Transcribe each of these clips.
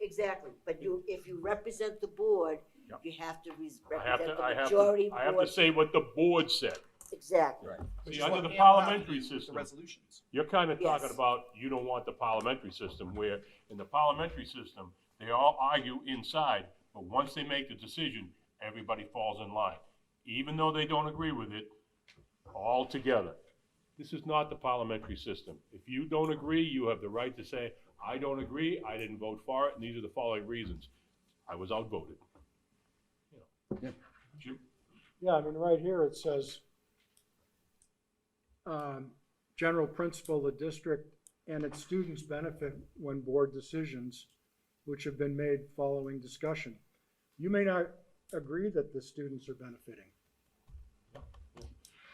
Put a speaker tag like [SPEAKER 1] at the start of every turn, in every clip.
[SPEAKER 1] Exactly, but you, if you represent the board,
[SPEAKER 2] Yeah.
[SPEAKER 1] you have to res-
[SPEAKER 2] I have to,
[SPEAKER 1] represent
[SPEAKER 2] I
[SPEAKER 1] the
[SPEAKER 2] have
[SPEAKER 1] majority
[SPEAKER 2] to,
[SPEAKER 1] board.
[SPEAKER 2] I have to say what the board said.
[SPEAKER 1] Exactly,
[SPEAKER 3] Which
[SPEAKER 2] See,
[SPEAKER 3] is
[SPEAKER 2] under
[SPEAKER 3] what
[SPEAKER 2] the
[SPEAKER 3] Pam allowed
[SPEAKER 2] parliamentary
[SPEAKER 3] the
[SPEAKER 2] system,
[SPEAKER 3] Resolutions.
[SPEAKER 2] You're kind of talking
[SPEAKER 1] Yes.
[SPEAKER 2] about, you don't want the parliamentary system, where in the parliamentary system, they all argue inside, but once they make the decision, everybody falls in line. Even though they don't agree with it, all together. This is not the parliamentary system. If you don't agree, you have the right to say, I don't agree, I didn't vote for it, and these are the following reasons. I was outvoted. You know.
[SPEAKER 4] Yeah.
[SPEAKER 2] You-
[SPEAKER 5] Yeah, I mean, right here, it says, um, general principle, the district and its students benefit when board decisions which have been made following discussion. You may not agree that the students are benefiting.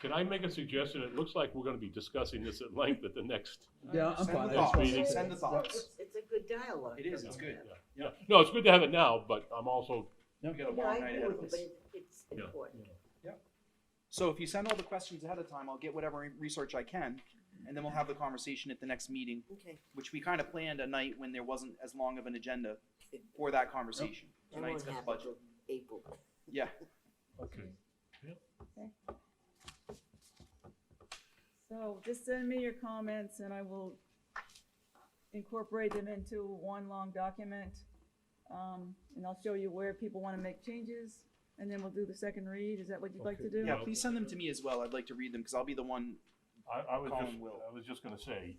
[SPEAKER 2] Can I make a suggestion? It looks like we're gonna be discussing this at length at the next
[SPEAKER 4] Yeah, I'm
[SPEAKER 3] Send the
[SPEAKER 4] fine.
[SPEAKER 2] thoughts.
[SPEAKER 4] That's-
[SPEAKER 2] meeting.
[SPEAKER 3] Send the thoughts.
[SPEAKER 1] it's, it's a good dialogue.
[SPEAKER 3] It is, it's good.
[SPEAKER 2] Yeah, no, it's good to have it now, but I'm also,
[SPEAKER 3] We got a
[SPEAKER 1] No, I
[SPEAKER 3] long night
[SPEAKER 1] agree
[SPEAKER 3] ahead
[SPEAKER 1] with
[SPEAKER 3] of
[SPEAKER 1] you,
[SPEAKER 3] us.
[SPEAKER 1] but it- it's
[SPEAKER 2] Yeah.
[SPEAKER 1] important.
[SPEAKER 3] So if you send all the questions ahead of time, I'll get whatever re- research I can, and then we'll have the conversation at the next meeting,
[SPEAKER 1] Okay.
[SPEAKER 3] which we kind of planned a night when there wasn't as long of an agenda for that conversation.
[SPEAKER 1] That won't
[SPEAKER 3] Tonight's got the
[SPEAKER 1] happen
[SPEAKER 3] budget.
[SPEAKER 1] till April.
[SPEAKER 3] Yeah,
[SPEAKER 2] okay.
[SPEAKER 6] So just send me your comments and I will incorporate them into one long document. Um, and I'll show you where people wanna make changes, and then we'll do the second read, is that what you'd like to do?
[SPEAKER 3] yeah, please send them to me as well. I'd like to read them, because I'll be the one,
[SPEAKER 2] I, I was
[SPEAKER 3] Colin
[SPEAKER 2] just,
[SPEAKER 3] will.
[SPEAKER 2] I was just gonna say,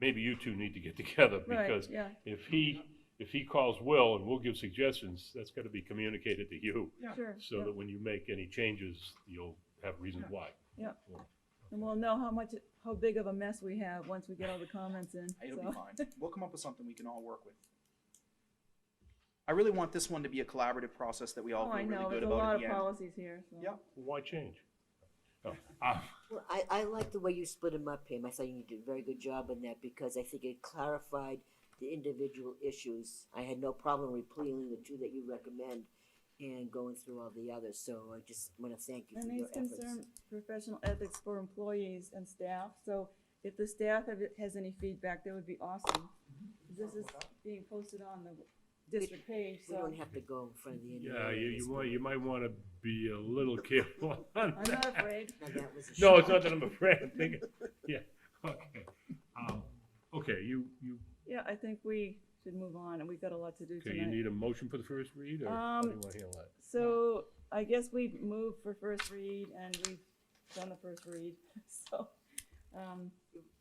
[SPEAKER 2] maybe you two need to get together,
[SPEAKER 6] Right,
[SPEAKER 2] because
[SPEAKER 6] yeah,
[SPEAKER 2] if he, if he calls Will and we'll give suggestions, that's gotta be communicated to you,
[SPEAKER 3] Yeah.
[SPEAKER 6] sure,
[SPEAKER 2] so
[SPEAKER 6] yeah,
[SPEAKER 2] that when you make any changes, you'll have reasons why.
[SPEAKER 6] and we'll know how much, how big of a mess we have once we get all the comments in,
[SPEAKER 3] it'll be
[SPEAKER 6] so.
[SPEAKER 3] fine. We'll come up with something we can all work with. I really want this one to be a collaborative process that we all
[SPEAKER 6] Oh, I
[SPEAKER 3] feel really
[SPEAKER 6] know,
[SPEAKER 3] good
[SPEAKER 6] there's a
[SPEAKER 3] about
[SPEAKER 6] lot
[SPEAKER 3] at
[SPEAKER 6] of
[SPEAKER 3] the end.
[SPEAKER 6] policies here, so.
[SPEAKER 3] Yeah.
[SPEAKER 2] Why change? No, I-
[SPEAKER 1] Well, I, I like the way you split them up, Pam. I thought you did a very good job on that because I think it clarified the individual issues. I had no problem repealing the two that you recommend and going through all the others, so I just wanna thank you for
[SPEAKER 6] And
[SPEAKER 1] your
[SPEAKER 6] these
[SPEAKER 1] efforts.
[SPEAKER 6] concern professional ethics for employees and staff, so if the staff have, has any feedback, that would be awesome. This is being posted on the district page,
[SPEAKER 1] Mm-hmm. We
[SPEAKER 6] so
[SPEAKER 1] don't have to go in front of the individual.
[SPEAKER 2] Yeah, you, you might, you might wanna be a little careful on
[SPEAKER 6] I'm
[SPEAKER 2] that.
[SPEAKER 6] not afraid.
[SPEAKER 1] Now, that was a
[SPEAKER 2] No,
[SPEAKER 1] shock.
[SPEAKER 2] it's not that I'm afraid, I'm thinking, yeah, okay. Um, Okay, you, you
[SPEAKER 6] Yeah, I think we should move on, and we've got a lot to do
[SPEAKER 2] Okay, you
[SPEAKER 6] tonight.
[SPEAKER 2] need a motion for the first read, or how do you
[SPEAKER 6] Um,
[SPEAKER 2] wanna handle that?
[SPEAKER 6] So I guess we've moved for first read, and we've done the first read, so, um,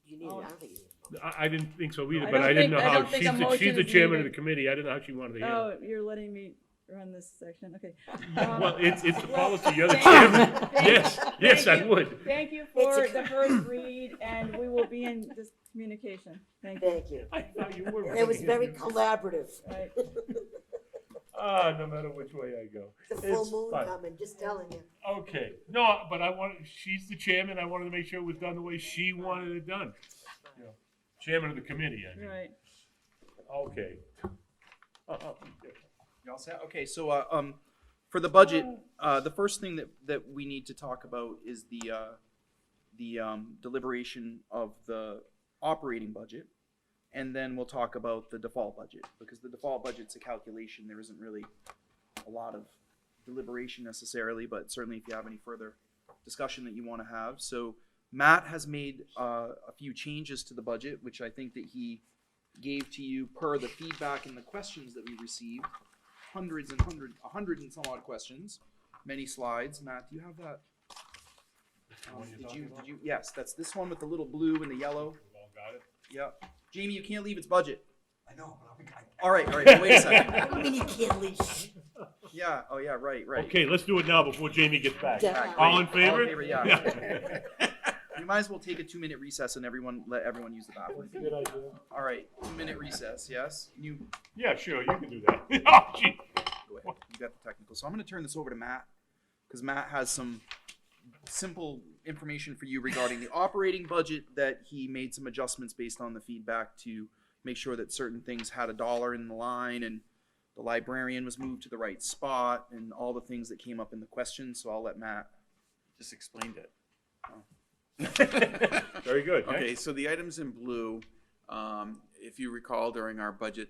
[SPEAKER 1] You need, it. I don't think you need. it.
[SPEAKER 2] I, I didn't think so either,
[SPEAKER 6] I
[SPEAKER 2] but
[SPEAKER 6] don't
[SPEAKER 2] I didn't
[SPEAKER 6] think-
[SPEAKER 2] know
[SPEAKER 6] I
[SPEAKER 2] how,
[SPEAKER 6] don't think
[SPEAKER 2] she's,
[SPEAKER 6] a
[SPEAKER 2] the- she's
[SPEAKER 6] motion
[SPEAKER 2] the
[SPEAKER 6] is
[SPEAKER 2] chairman of the
[SPEAKER 6] needed.
[SPEAKER 2] committee, I didn't know how she wanted to handle
[SPEAKER 6] oh,
[SPEAKER 2] it.
[SPEAKER 6] you're letting me run this section, okay.
[SPEAKER 2] Well,
[SPEAKER 6] Um,
[SPEAKER 2] it's, it's the
[SPEAKER 6] well,
[SPEAKER 2] policy, you're the
[SPEAKER 6] thank-
[SPEAKER 2] chairman,
[SPEAKER 6] thank
[SPEAKER 2] yes, yes, I
[SPEAKER 6] you.
[SPEAKER 2] would.
[SPEAKER 6] Thank you for the first read, and we will be in this communication. Thank you.
[SPEAKER 1] Thank you.
[SPEAKER 2] I thought you were.
[SPEAKER 1] It was
[SPEAKER 2] running
[SPEAKER 1] very
[SPEAKER 2] it.
[SPEAKER 1] collaborative.
[SPEAKER 6] Right.
[SPEAKER 2] Ah, no matter which way I go.
[SPEAKER 1] The
[SPEAKER 2] It's
[SPEAKER 1] full moon
[SPEAKER 2] fine.
[SPEAKER 1] coming, just telling you.
[SPEAKER 2] Okay, no, but I wanted, she's the chairman, I wanted to make sure it was done the way she wanted it done. You know, Chairman of the committee, I mean,
[SPEAKER 6] Right.
[SPEAKER 2] okay.
[SPEAKER 3] Y'all set? Okay, so, uh, um, for the budget, uh, the first thing that, that we need to talk about is the, uh, the, um, deliberation of the operating budget. And then we'll talk about the default budget, because the default budget's a calculation, there isn't really a lot of deliberation necessarily, but certainly if you have any further discussion that you wanna have. So Matt has made, uh, a few changes to the budget, which I think that he gave to you per the feedback and the questions that we received hundreds and hundreds, a hundred and some odd questions, many slides. Matt, do you have that? Um, did you, did you, yes, that's this one with the little blue and the yellow. Yep. Jamie, you can't leave. It's budget.
[SPEAKER 7] I know, but I'm, I,
[SPEAKER 3] All right, all right. Wait a second.
[SPEAKER 1] I mean, you can't leave.
[SPEAKER 3] Yeah. Oh, yeah. Right, right.
[SPEAKER 2] Okay, let's do it now before Jamie gets back.
[SPEAKER 1] Yeah.
[SPEAKER 3] Alright,
[SPEAKER 2] All in
[SPEAKER 3] great.
[SPEAKER 2] favor?
[SPEAKER 3] yeah. we might as well take a two minute recess and everyone let everyone use the bathroom.
[SPEAKER 5] Good idea.
[SPEAKER 3] All right, two minute recess. Yes. You
[SPEAKER 2] Yeah, sure, you can do that. Oh, gee.
[SPEAKER 3] Go ahead. You got the technical. So I'm going to turn this over to Matt because Matt has some simple information for you regarding the operating budget that he made some adjustments based on the feedback to make sure that certain things had a dollar in the line and the librarian was moved to the right spot and all the things that came up in the question. So I'll let Matt.
[SPEAKER 7] just explained it.
[SPEAKER 2] Very good.
[SPEAKER 7] Okay, so the items in blue, um, if you recall during our budget